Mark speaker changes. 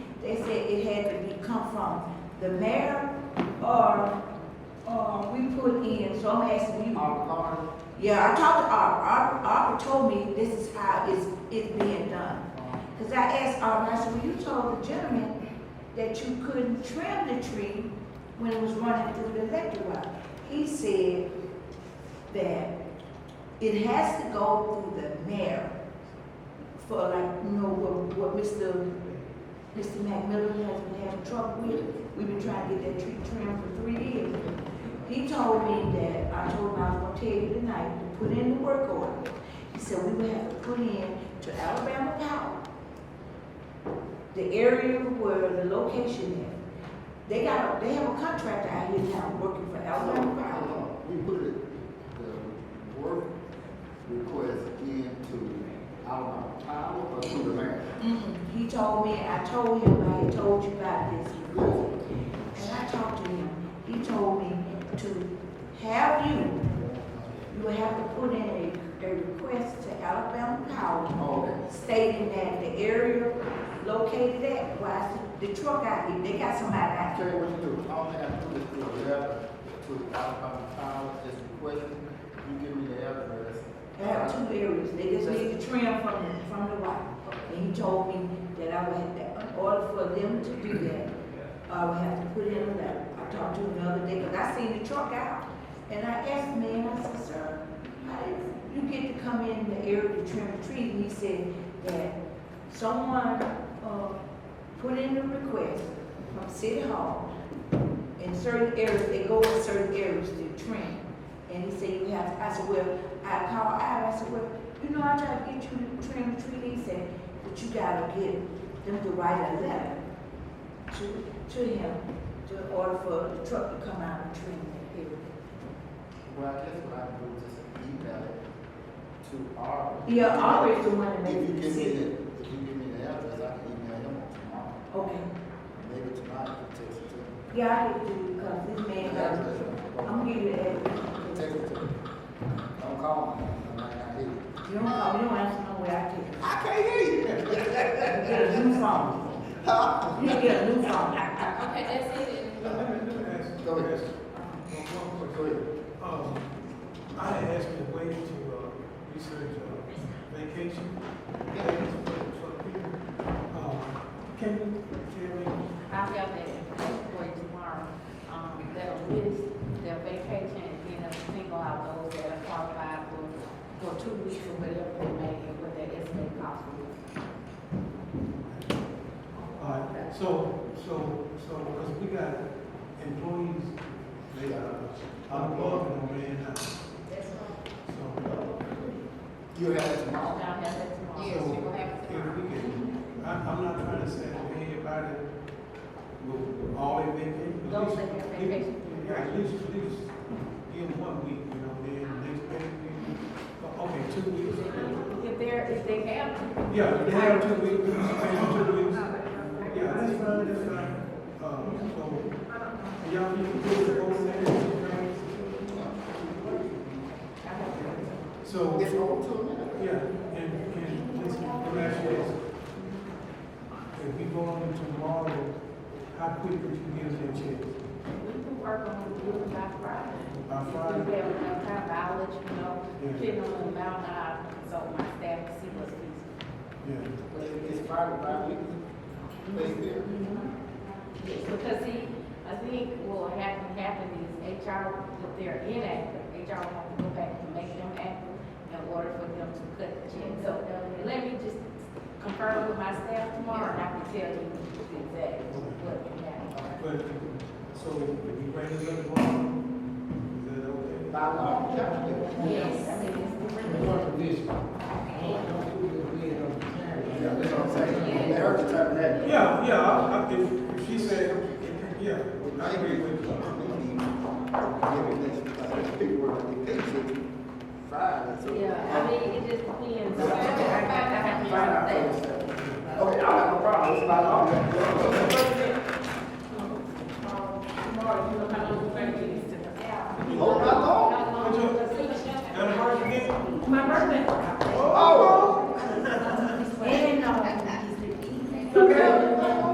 Speaker 1: come from, the mayor or, or we put in, so I'm asking you.
Speaker 2: Our authority.
Speaker 1: Yeah, I talked to Arbor, Arbor, Arbor told me this is how it's, it's being done. Cause I asked Arbor, I said, well, you told the gentleman that you couldn't trim the tree when it was running through the electric wire. He said that it has to go through the mayor for like, you know, what, what Mr. Mr. McMillan has been having trouble with. We've been trying to get that tree trimmed for three years. He told me that, I told him I was gonna tell you tonight, to put in the work order. He said we would have to put in to Alabama Power. The area where the location is. They got, a- they have a contractor out here now working for Alabama Power.
Speaker 3: Hold on, we put it, the work request into our power or to the man?
Speaker 1: Mm-mm. Mm-hmm. He told me, I told him, I had told you about this before. And I talked to him, he told me to have you, you would have to put in a, a request to Alabama Power
Speaker 3: Okay,
Speaker 1: stating that the area located at, why is the truck out here, they got somebody
Speaker 3: I
Speaker 1: out
Speaker 3: tell
Speaker 1: there.
Speaker 3: you what you do, I'll have to put it through a letter to the Alabama Power, just a question, you give me the address.
Speaker 1: They have two areas, they just need to trim from, from the white. And he told me that I would have, that in order for them to do that, I would have to put in a letter. I talked to him the other day, because I seen the truck out, and I asked him, and I said, sir, how did you get to come in the area to trim the trees? And he said that someone, uh, put in a request from City Hall, in certain areas, they go in certain areas to trim. And he said, you have, I said, well, I called Ira, I said, well, you know, I tried to get you to trim the tree, he said, but you gotta get them to write a letter to, to him, to order for the truck to come out and trim that area.
Speaker 3: Well, I guess what I do is just email it to our.
Speaker 1: Yeah, Ari is the one that
Speaker 3: If
Speaker 1: made
Speaker 3: you
Speaker 1: the
Speaker 3: give me
Speaker 1: decision.
Speaker 3: the, if you give me the address, I can email him tomorrow,
Speaker 1: Okay,
Speaker 3: maybe tonight, I can text it to him.
Speaker 1: yeah, I did do, because this man, got it. I'm gonna give you that,
Speaker 3: Text it to me. Don't call me, I might not hear you.
Speaker 1: you don't call, you don't answer no way, I take it.
Speaker 3: I can't hear
Speaker 1: You get a new phone,
Speaker 3: you. Huh?
Speaker 1: you get a new phone.
Speaker 2: Okay, that's it.
Speaker 4: Let me, let me ask you,
Speaker 3: Go ahead.
Speaker 4: ask you one more
Speaker 3: Go
Speaker 4: question.
Speaker 3: ahead.
Speaker 4: Um, I had asked you to wait to, uh, research, uh, vacation. plans for- for people. Um, Can you tell me,
Speaker 2: I'll have that for you tomorrow. Um, that'll list their vacation and then it'll single out those that are qualified for, for two weeks or whatever they may, and what their estimate cost will be.
Speaker 4: uh, so, so, so, because we got employees, they are unemployed, and they're not,
Speaker 2: That's right.
Speaker 4: so. uh,
Speaker 3: You have it
Speaker 2: I'll
Speaker 3: tomorrow.
Speaker 2: have that tomorrow.
Speaker 5: Yes, you will have it
Speaker 4: So,
Speaker 5: tomorrow.
Speaker 4: If we can, I, I'm not trying to say that everybody will all their vacation. but at
Speaker 2: Those that
Speaker 4: least-
Speaker 2: have vacation.
Speaker 4: Yeah, at least, at least, give one week, you know, then the next week, we- okay, two weeks.
Speaker 2: If they're, if they have to.
Speaker 4: Yeah, if they have two weeks, we can pay them two weeks. Yeah, that's fine, that's fine. Uh, so, y'all need to do it both sides.
Speaker 2: I have to.
Speaker 4: So.
Speaker 3: It's over to a minute.
Speaker 4: Yeah, and, and listen, let me ask you this. If we go on tomorrow, how quick would you give us a chance?
Speaker 2: We can work on the bill by Friday.
Speaker 4: By
Speaker 2: If we
Speaker 4: Friday?
Speaker 2: have enough time, I'll let you know,
Speaker 4: Yeah.
Speaker 2: depending on the amount I consult my staff to see what's feasible.
Speaker 4: Yeah.
Speaker 3: But it- It's Friday, Friday. They there.
Speaker 2: Yes, Because see, I think what will happen, happen is HR, if they're inactive, HR will have to go back and make them active in order for them to cut the check. So let me just confirm with my staff tomorrow, and I can tell you exactly what can happen.
Speaker 4: But, so if we bring it up tomorrow, is that okay?
Speaker 3: By law, you have to do it.
Speaker 2: Yes, I mean, it's the
Speaker 6: What a vision. Oh, don't do it again, I'm tired.
Speaker 3: Yeah, that's what I'm saying. They heard you type that.
Speaker 4: Yeah, yeah, I, I, if if she said, yeah, I agree with you.
Speaker 3: Friday, so.
Speaker 2: Yeah, I mean, it just depends. I have to find out that.
Speaker 3: Okay, I have no problem, it's by law. Oh.